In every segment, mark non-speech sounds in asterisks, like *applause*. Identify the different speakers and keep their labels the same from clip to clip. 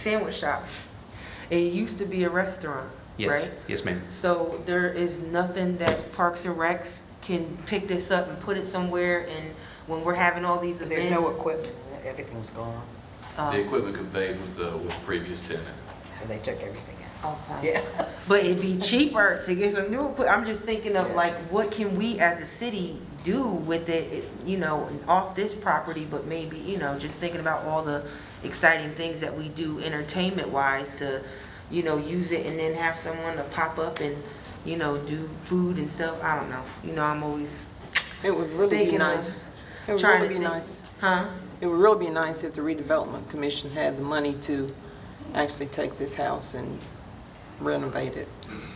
Speaker 1: sandwich shop. It used to be a restaurant,
Speaker 2: Yes,
Speaker 1: right?
Speaker 2: yes, ma'am.
Speaker 1: So there is nothing that Parks and Recs can pick this up and put it somewhere and when we're having all these
Speaker 3: So There's no
Speaker 1: events.
Speaker 3: equipment, everything's gone,
Speaker 1: um,
Speaker 4: The equipment conveyed was the, with the previous tenant.
Speaker 3: so they took everything out.
Speaker 1: oh, okay.
Speaker 3: Yeah.
Speaker 1: But it'd be cheaper to get some new equipment. I'm just thinking of
Speaker 3: Yeah.
Speaker 1: like, what can we as a city do with it, you know, off this property? But maybe, you know, just thinking about all the exciting things that we do entertainment wise to, you know, use it and then have someone to pop up and, you know, do food and stuff. I don't know. You know, I'm always,
Speaker 5: It would really be
Speaker 1: Thinking of
Speaker 5: nice. It would
Speaker 1: trying
Speaker 5: really
Speaker 1: to
Speaker 5: be
Speaker 1: think-
Speaker 5: nice.
Speaker 1: huh?
Speaker 5: It would really be nice if the redevelopment commission had the money to actually take this house and renovate it.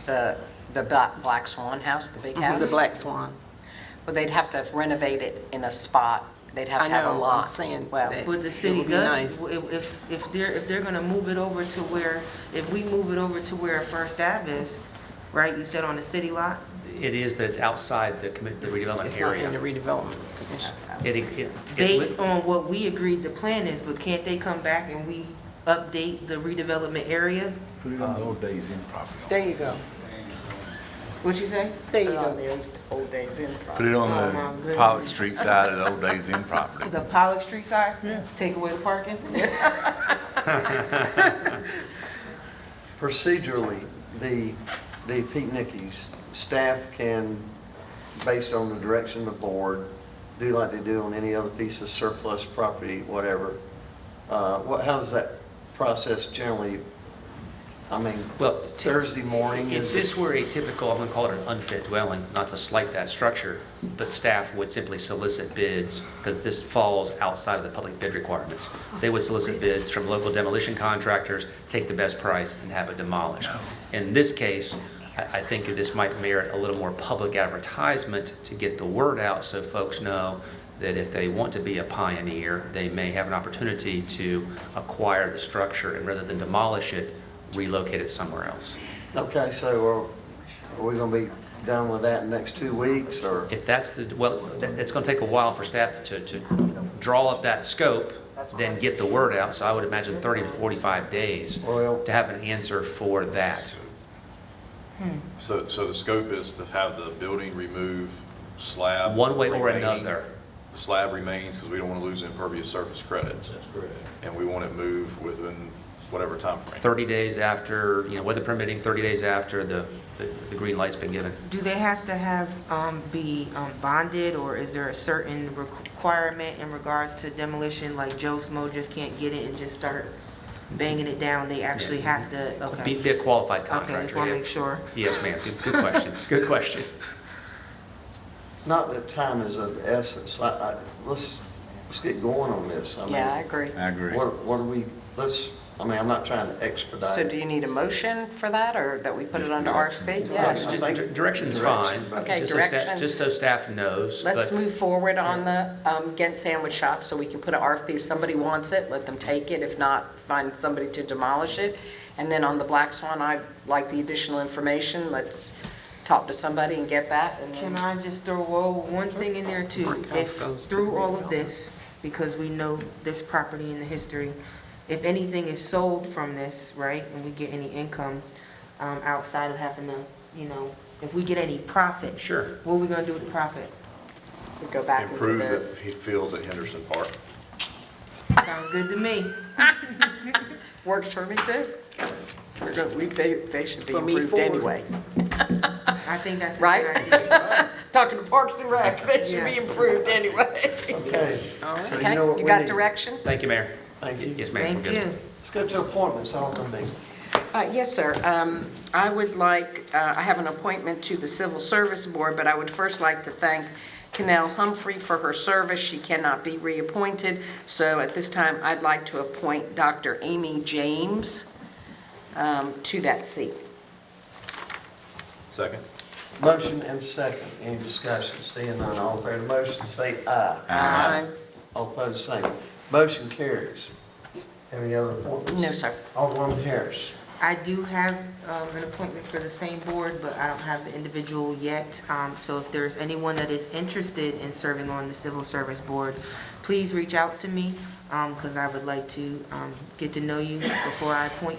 Speaker 3: The, the Black Black Swan House, the big
Speaker 5: Mm-hmm. The
Speaker 3: house?
Speaker 5: Black Swan.
Speaker 3: Well, they'd have to renovate it in a spot, they'd have
Speaker 5: I
Speaker 3: to have
Speaker 5: know,
Speaker 3: a
Speaker 5: I'm
Speaker 3: lot.
Speaker 5: saying
Speaker 3: Well,
Speaker 5: that.
Speaker 1: But the
Speaker 5: It
Speaker 1: city
Speaker 5: would be
Speaker 1: does,
Speaker 5: nice.
Speaker 1: if, if- if they're, if they're gonna move it over to where, if we move it over to where First Ave is, right, you said on the city lot?
Speaker 2: It is, but it's outside the commi- the
Speaker 5: It's
Speaker 2: redevelopment
Speaker 5: not in
Speaker 2: area.
Speaker 5: the redevelopment commission.
Speaker 2: It- it- it-
Speaker 1: based on what we agreed the plan is, but can't they come back and we update the redevelopment area?
Speaker 6: Put it on the old days in property.
Speaker 5: There you go.
Speaker 1: What'd you say?
Speaker 5: There you
Speaker 3: um,
Speaker 5: go.
Speaker 3: old days in.
Speaker 6: Put it
Speaker 1: Oh, my
Speaker 6: on the
Speaker 1: goodness.
Speaker 6: Pollock Street side of the old days in property.
Speaker 1: The Pollock Street side? Take away the parking?
Speaker 7: Procedurally, the, the Pete Nickies, staff can, based on the direction of the board, do like they do on any other piece of surplus property, whatever. Uh, What, how does that process generally, I mean,
Speaker 2: Well, t- t-
Speaker 7: Thursday morning
Speaker 2: If
Speaker 7: is?
Speaker 2: this were a typical, I'm going to call it an unfit dwelling, not to slight that structure, but staff would simply solicit bids, because this falls outside of the public bid requirements. They would solicit bids from local demolition contractors, take the best price, and have it demolished. In this case, I I think this might merit a little more public advertisement to get the word out, so folks know that if they want to be a pioneer, they may have an opportunity to acquire the structure, and rather than demolish it, relocate it somewhere else.
Speaker 7: Okay, so are, are we gonna be done with that in the next two weeks, or?
Speaker 2: If that's the, well, that- it's going to take a while for staff to, to draw up that scope, then get the word out. So I would imagine 30 to 45 days
Speaker 7: Well-
Speaker 2: to have an answer for that.
Speaker 4: So, so the scope is to have the building removed, slab.
Speaker 2: One way or
Speaker 4: remaining.
Speaker 2: another.
Speaker 4: The slab remains because we don't want to lose impervious surface credits. That's correct. And we want it moved within whatever timeframe.
Speaker 2: 30 days after, you know, weather permitting, 30 days after the, the- the green light's been given.
Speaker 1: Do they have to have, um, be um, bonded, or is there a certain requirement in regards to demolition? Like Joe Smo just can't get it and just start banging it down, they actually have to,
Speaker 2: Be,
Speaker 1: okay.
Speaker 2: be a qualified
Speaker 1: Okay, just
Speaker 2: contractor.
Speaker 1: wanna
Speaker 2: yeah.
Speaker 1: make sure.
Speaker 2: Yes, ma'am. Good- Good
Speaker 1: *laughs*
Speaker 2: question. Good question.
Speaker 7: Not that time is of essence, I, I, let's, let's get going on this. I mean,
Speaker 3: Yeah, I agree.
Speaker 6: I agree.
Speaker 7: What, what do we, let's, I mean, I'm not trying to expedite.
Speaker 3: So do you need a motion for that, or that we put it under RFP?
Speaker 7: Direction.
Speaker 3: Yeah.
Speaker 2: Di- di- Direction's fine.
Speaker 7: Okay,
Speaker 2: just so sta-
Speaker 3: direction.
Speaker 2: Just so staff knows.
Speaker 3: Let's
Speaker 2: but-
Speaker 3: move forward on the um, Ghent Sandwich Shop, so we can put an RFP. If somebody wants it, let them take it. If not, find somebody to demolish it. And then on the Black Swan, I'd like the additional information. Let's talk to somebody and get that, and
Speaker 1: Can
Speaker 3: then
Speaker 1: I just throw oh, one thing in there too? If through all of this, because we know this property and the history, if anything is sold from this, right, and we get any income, um, outside of having to, you know, if we get any profit.
Speaker 2: Sure.
Speaker 1: What are we gonna do with the profit?
Speaker 3: we go back into
Speaker 4: Improve the
Speaker 3: the,
Speaker 4: f- fields at Henderson Park.
Speaker 1: Sounds good to me.
Speaker 3: works for me too. We're go- we- They they should be
Speaker 5: For me
Speaker 3: improved
Speaker 5: forward.
Speaker 3: anyway.
Speaker 1: I think that's a
Speaker 3: Right?
Speaker 1: good idea.
Speaker 3: Talking to Parks and Rec, *laughs* they should be
Speaker 1: Yeah.
Speaker 3: improved anyway.
Speaker 7: Okay. so
Speaker 3: Okay,
Speaker 7: know what
Speaker 3: you
Speaker 7: we
Speaker 3: got
Speaker 7: need.
Speaker 3: direction?
Speaker 2: Thank you, Mayor.
Speaker 7: Thank you.
Speaker 2: Yes, ma'am. we're
Speaker 1: Thank
Speaker 2: good.
Speaker 1: you.
Speaker 7: Let's go to appointments, all of them.
Speaker 3: Uh, Yes, sir. Um, I would like, uh, I have an appointment to the Civil Service Board, but I would first like to thank Canal Humphrey for her service. She cannot be reappointed, so at this time, I'd like to appoint Dr. Amy James um, to that seat.
Speaker 4: Second?
Speaker 7: Motion and second, any discussion, seeing none, all in favor of the motion, say aye.
Speaker 3: Aye.
Speaker 7: All opposed, same. Motion carries. Any other appointments?
Speaker 3: No, sir.
Speaker 7: Alderman Harris.
Speaker 1: I do have um, an appointment for the same board, but I don't have the individual yet. Um, So if there's anyone that is interested in serving on the Civil Service Board, please reach out to me. um, because I would like to um, get to know you before I appoint